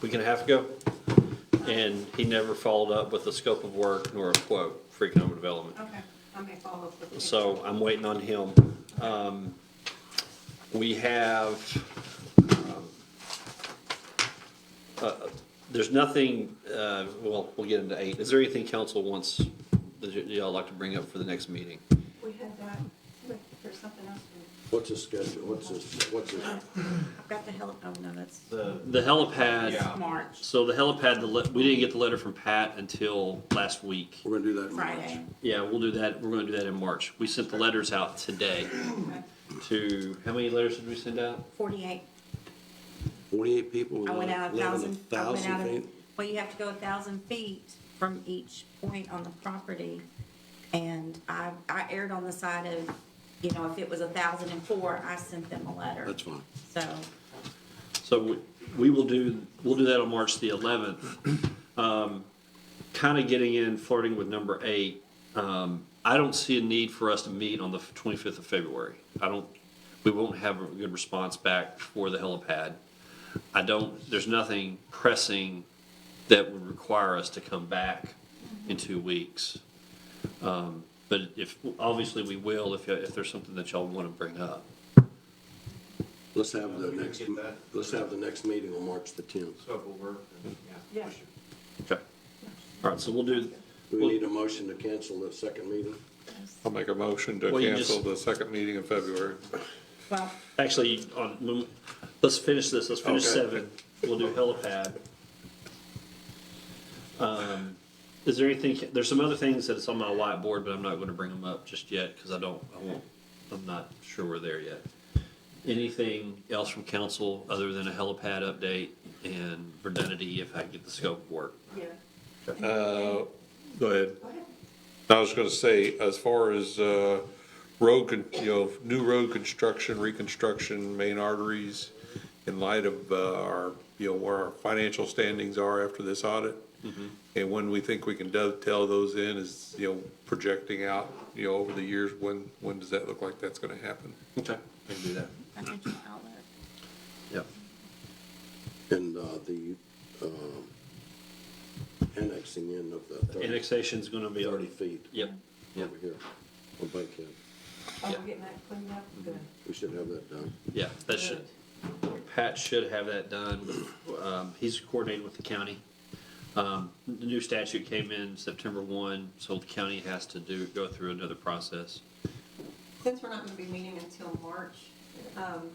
week and a half ago. And he never followed up with a scope of work nor a quote for economic development. Okay, I may follow up with. So I'm waiting on him. Um, We have, um, uh, there's nothing, uh, well, we'll get into eight. Is there anything council wants, that y- y'all like to bring up for the next meeting? We had that, wait, there's something else. in What's his schedule, what's his, what's his, there. I've got the hell, oh, no, that's The, The helipad, March, so the helipad, the le- we didn't get the letter from Pat until last week. we're gonna do that in March. Friday. Yeah, we'll do that, we're gonna do that in March. We sent the letters out today to, how many letters did we send out? Forty-eight, Forty-eight people. I went out a living in thousand, I went out a, feet? well, you have to go a thousand feet from each point on the property. And I, I erred on the side of, you know, if it was a thousand and four, I sent them a letter. That's fine. So, So we, we will do, we'll do that on March the eleventh. Kind of getting in, flirting with number eight. Um, I don't see a need for us to meet on the twenty-fifth of February. I don't, we won't have a good response back for the helipad. I don't, there's nothing pressing that would require us to come back in two weeks. Um, But if, obviously we will if, if there's something that y'all want to bring up. Let's have the next, get that. let's have the next meeting on March the tenth. scope of work, and, yeah. we should- Okay. All right, so we'll do, Do we need a motion to cancel the second meeting? I'll make a motion to Well, you cancel just- the second meeting in February. well, Actually, on, when- let's finish this, let's finish Okay. seven, we'll do helipad. Um, Is there anything, there's some other things that's on my whiteboard, but I'm not gonna bring them up just yet, cause I don't, I won't, I'm not sure we're there yet. Anything else from council other than a helipad update and redundancy if I get the scope of work? yeah. Uh, Go ahead. I was gonna say, as far as, uh, road, con- you know, new road construction, reconstruction, main arteries, in light of, uh, our, you know, where our financial standings are after this audit, Mm-hmm. and when we think we can dovetail those in is, you know, projecting out, you know, over the years, when, when does that look like that's gonna happen? Okay. I can do that. Financial outlet. Yep. And, uh, the, um, annexing in of the thirty, Annexation's gonna be. thirty feet Yep, yeah, over here on Bankhead. Oh, Yeah. we're getting that cleaned up? Good. We should have that done. yeah, that should, Pat should have that done. Um, he's coordinating with the county. Um, the new statute came in September one, so the county has to do, go through another process. Since we're not gonna be meeting until March, um,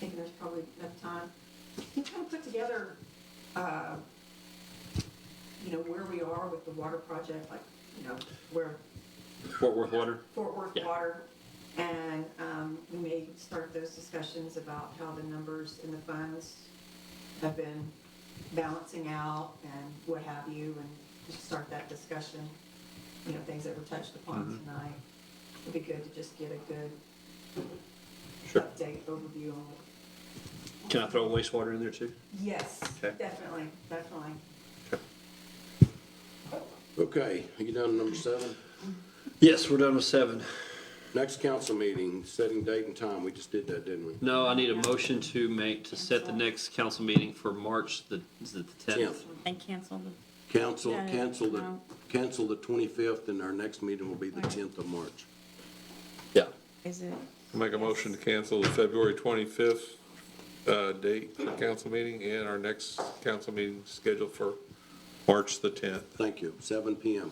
thinking there's probably enough time, can you kind of put together, uh, you know, where we are with the water project, like, you know, where Fort Worth Water? Fort Worth Yeah. Water, and, um, we may start those discussions about how the numbers and the funds have been balancing out and what have you, and just start that discussion, you know, things that were touched upon Mm-hmm. tonight. It'd be good to just get a good Sure. update overview on it. Can I throw wastewater in there too? Yes, Okay. definitely, definitely. Okay, you down to number seven? Yes, we're done with seven. Next council meeting, setting date and time, we just did that, didn't we? No, I need a motion to make, to set the next council meeting for March the, is it the tenth? Tenth. And cancel the, Cancel, Yeah, cancel the, no. cancel the twenty-fifth, and our next meeting will be the tenth of March. Yeah. is it, I'll Make a motion to cancel the February twenty-fifth, uh, date for council meeting and our next council meeting scheduled for March the tenth, Thank you, seven PM.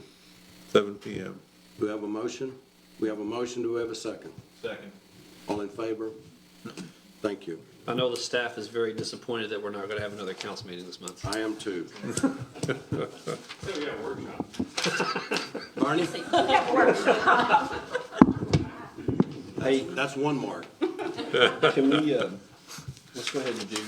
seven P M. Do we have a motion? We have a motion, do we have a second? Second. All in favor? Thank you. I know the staff is very disappointed that we're not gonna have another council meeting this month. I am too. So, yeah, workshop. Barney, Hey, that's one mark. Can we, uh, let's go ahead and do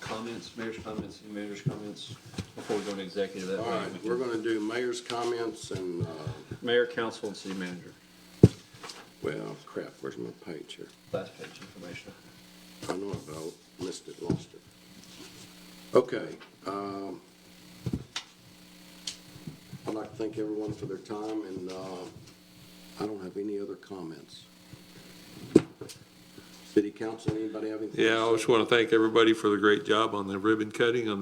comments, mayor's comments, and mayor's comments before we go into executive that All way. right, we we're can- gonna do mayor's comments and, uh, Mayor, council, and city manager, well, crap, where's my page here? last page information. I know about, missed it, lost it. Okay, um, I'd like to thank everyone for their time, and, uh, I don't have any other comments. City council, anybody have anything? to Yeah, I say? just want to thank everybody for the great job on the ribbon cutting on